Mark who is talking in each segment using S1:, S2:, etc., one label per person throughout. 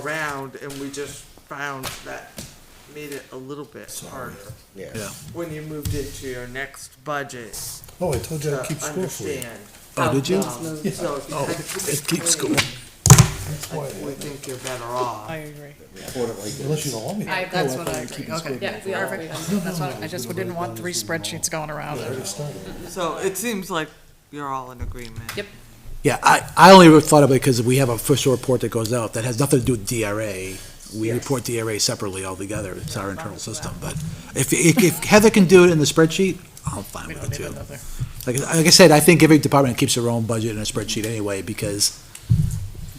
S1: around and we just found that made it a little bit harder
S2: Yeah.
S3: Yeah.
S1: when you moved into your next budget
S2: Oh, I told you
S1: to
S2: I'd keep score for you.
S1: understand.
S3: Oh, did you?
S1: Um, So if you
S3: Oh,
S1: kind of
S3: it keeps
S1: clean,
S3: going.
S2: That's why,
S1: We think you're better off.
S4: I agree.
S2: unless you don't want me.
S4: I,
S2: to.
S4: that's what I agree, okay.
S5: Yeah, we are very-
S4: That's what, I just didn't want three spreadsheets going around.
S2: I already started.
S1: So it seems like you're all in agreement.
S5: Yep.
S3: Yeah, I, I only thought of it because we have a official report that goes out that has nothing to do with DRA. We report DRA separately altogether. It's our internal system, but if, if if Heather can do it in the spreadsheet, I'm fine
S4: We
S3: with
S4: don't
S3: it
S4: need
S3: too.
S4: another.
S3: Like, like I said, I think every department keeps their own budget in a spreadsheet anyway because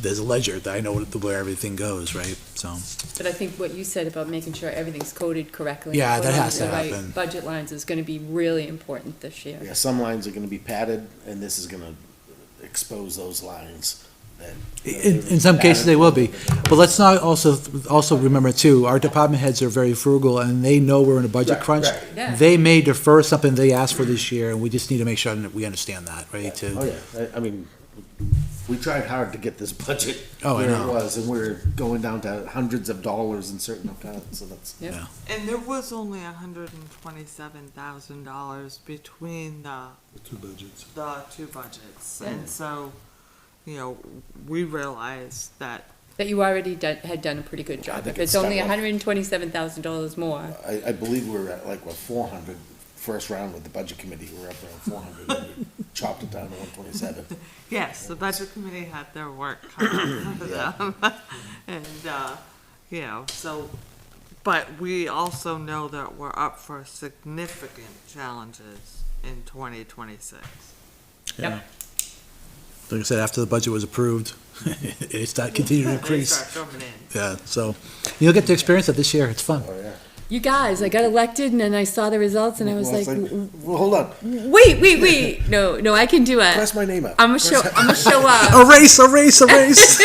S3: there's a ledger that I know where everything goes, right? So,
S5: But I think what you said about making sure everything's coded correctly.
S3: Yeah,
S5: and
S3: that
S5: put on
S3: has
S5: the
S3: to
S5: right
S3: happen.
S5: Budget lines is gonna be really important this year.
S6: Yeah, some lines are gonna be padded, and this is gonna expose those lines that.
S3: in, in some cases they will be. But let's not also, also remember too, our department heads are very frugal and they know we're in a budget
S6: Right,
S3: crunch.
S6: right.
S5: Yeah.
S3: They may defer something they asked for this year, and we just need to make sure that we understand that, right,
S6: Oh,
S3: to,
S6: yeah, I, I mean, we tried hard to get this budget
S3: Oh, I
S6: where it
S3: know.
S6: was, and we're going down to hundreds of dollars in certain accounts, so that's.
S5: Yep.
S3: Yeah.
S1: And there was only a hundred and twenty-seven thousand dollars between the,
S2: Two budgets.
S1: the two budgets. And so, you know, we realized that
S5: That you already done, had done a pretty good
S6: I
S5: job.
S6: think
S5: If
S6: it's
S5: it's only
S6: done well.
S5: hundred and twenty-seven thousand dollars more,
S6: I, I believe we were at like, what, four hundred, first round with the budget committee, we were up around four hundred, and we chopped it down to one twenty-seven.
S1: Yes, the budget committee had their work cut out for them. And, uh, you know, so, but we also know that we're up for significant challenges in twenty twenty-six.
S3: yeah. Like I said, after the budget was approved, it's not continuing
S1: They
S3: to increase.
S1: start coming in.
S3: Yeah, so you'll get to experience it this year. It's fun.
S6: Oh, yeah.
S5: you guys, I got elected and then I saw the results and I was
S6: Well,
S5: like,
S6: it's
S5: "W-
S6: Well, hold on,
S5: wait, wait, wait, no, no, I can do
S6: press
S5: it.
S6: my name up.
S5: I'm gonna show, I'm gonna show up.
S3: A race, a race, a race.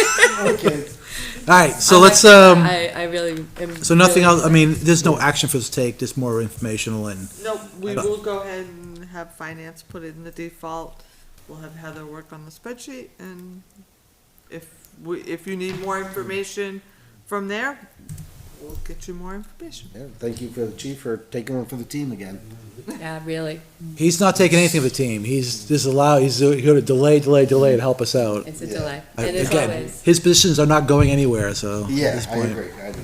S3: All right, so
S5: I'm
S3: let's,
S5: actually-
S3: um,
S5: I, I really am.
S3: so nothing
S5: really
S3: else, I mean, there's no action for us to take, just more informational and,
S1: No, we
S3: I don't-
S1: will go ahead and have finance put in the default. We'll have Heather work on the spreadsheet and if we, if you need more information from there, we'll get you more information.
S6: Yeah, thank you for the chief for taking one for the team again.
S5: excited. Yeah, really,
S3: he's not taking anything of the team. He's just allow, he's gonna delay, delay, delay and help us out.
S5: it's a delay,
S3: I-
S5: and as
S3: Uh, again,
S5: always,
S3: His positions are not going anywhere, so. at
S6: Yeah,
S3: this
S6: I
S3: point.
S6: agree, I agree.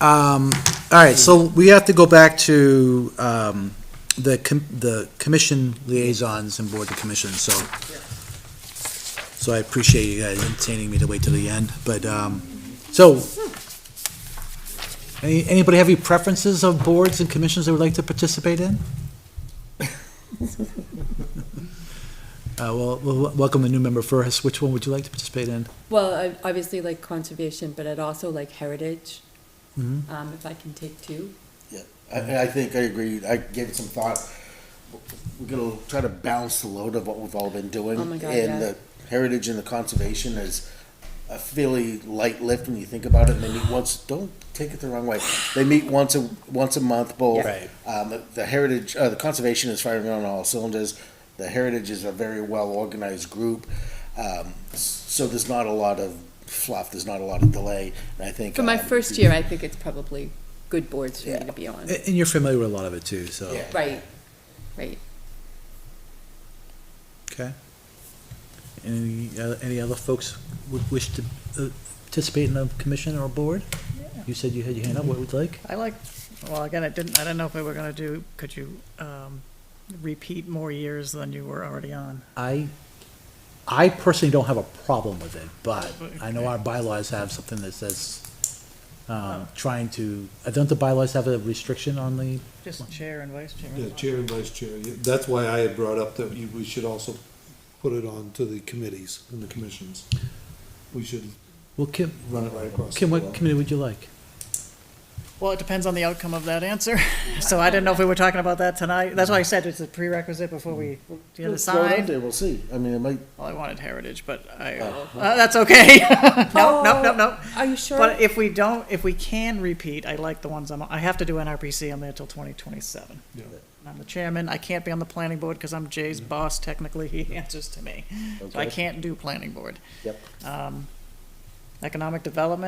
S3: Um, all right, so we have to go back to, um, the com- the commission liaisons and board of commissions, so. So I appreciate you guys entertaining me to wait till the end, but, um, so. Any, anybody have any preferences of boards and commissions they would like to participate in? Uh, well, we'll welcome a new member first. Which one would you like to participate in?
S5: well, I obviously like conservation, but I'd also like heritage.
S3: Mm-hmm.
S5: Um, if I can take two.
S6: I, and I think I agree. I gave it some thought. We're gonna try to balance the load of what we've all been doing.
S5: Oh my God,
S6: And
S5: yeah.
S6: the heritage and the conservation is a fairly light lift when you think about it. And they meet once, don't take it the wrong way. They meet once a, once a month, both.
S3: Right.
S6: Um, the- the heritage, uh, the conservation is firing on all cylinders. The heritage is a very well organized group. Um, s- so there's not a lot of fluff. There's not a lot of delay. And I think.
S5: For my
S6: um,
S5: first year, I think it's probably good boards for me
S6: Yeah.
S5: to be on.
S3: A- And you're familiar with a lot of it too, so.
S6: Yeah.
S5: Right, right.
S3: Okay. Any, uh, any other folks would wish to uh, participate in a commission or a board? You said you had your hand up, what would you like?
S4: I like, well, again, I didn't, I don't know if we were gonna do, could you, um, repeat more years than you were already on?
S3: I, I personally don't have a problem with it, but I know our bylaws have something that says, um, trying to, uh, don't the bylaws have a restriction on the?
S4: Just chair and vice chair.
S2: Yeah, chair and vice chair. Yeah, That's why I had brought up that you- we should also put it on to the committees and the commissions. We should
S3: Well, Kim,
S2: run it right across.
S3: Kim,
S2: the
S3: what
S2: board.
S3: committee would you like?
S4: Well, it depends on the outcome of that answer. So I didn't know if we were talking about that tonight. That's why I said it's a prerequisite before we
S6: Throw it out
S4: decide.
S6: there, We'll see. I mean, it might
S4: Well, I wanted heritage, but I, uh, that's okay. No, no, no, no.
S5: Oh, Are you sure?
S4: But if we don't, if we can repeat, I like the ones I'm, I have to do NRPC, I'm there till twenty twenty-seven.
S2: Yeah.
S4: I'm the chairman, I can't be on the planning board because I'm Jay's boss technically, he answers to me. So I
S6: Okay.
S4: can't do planning board.
S6: Yep.
S4: Um, Economic development,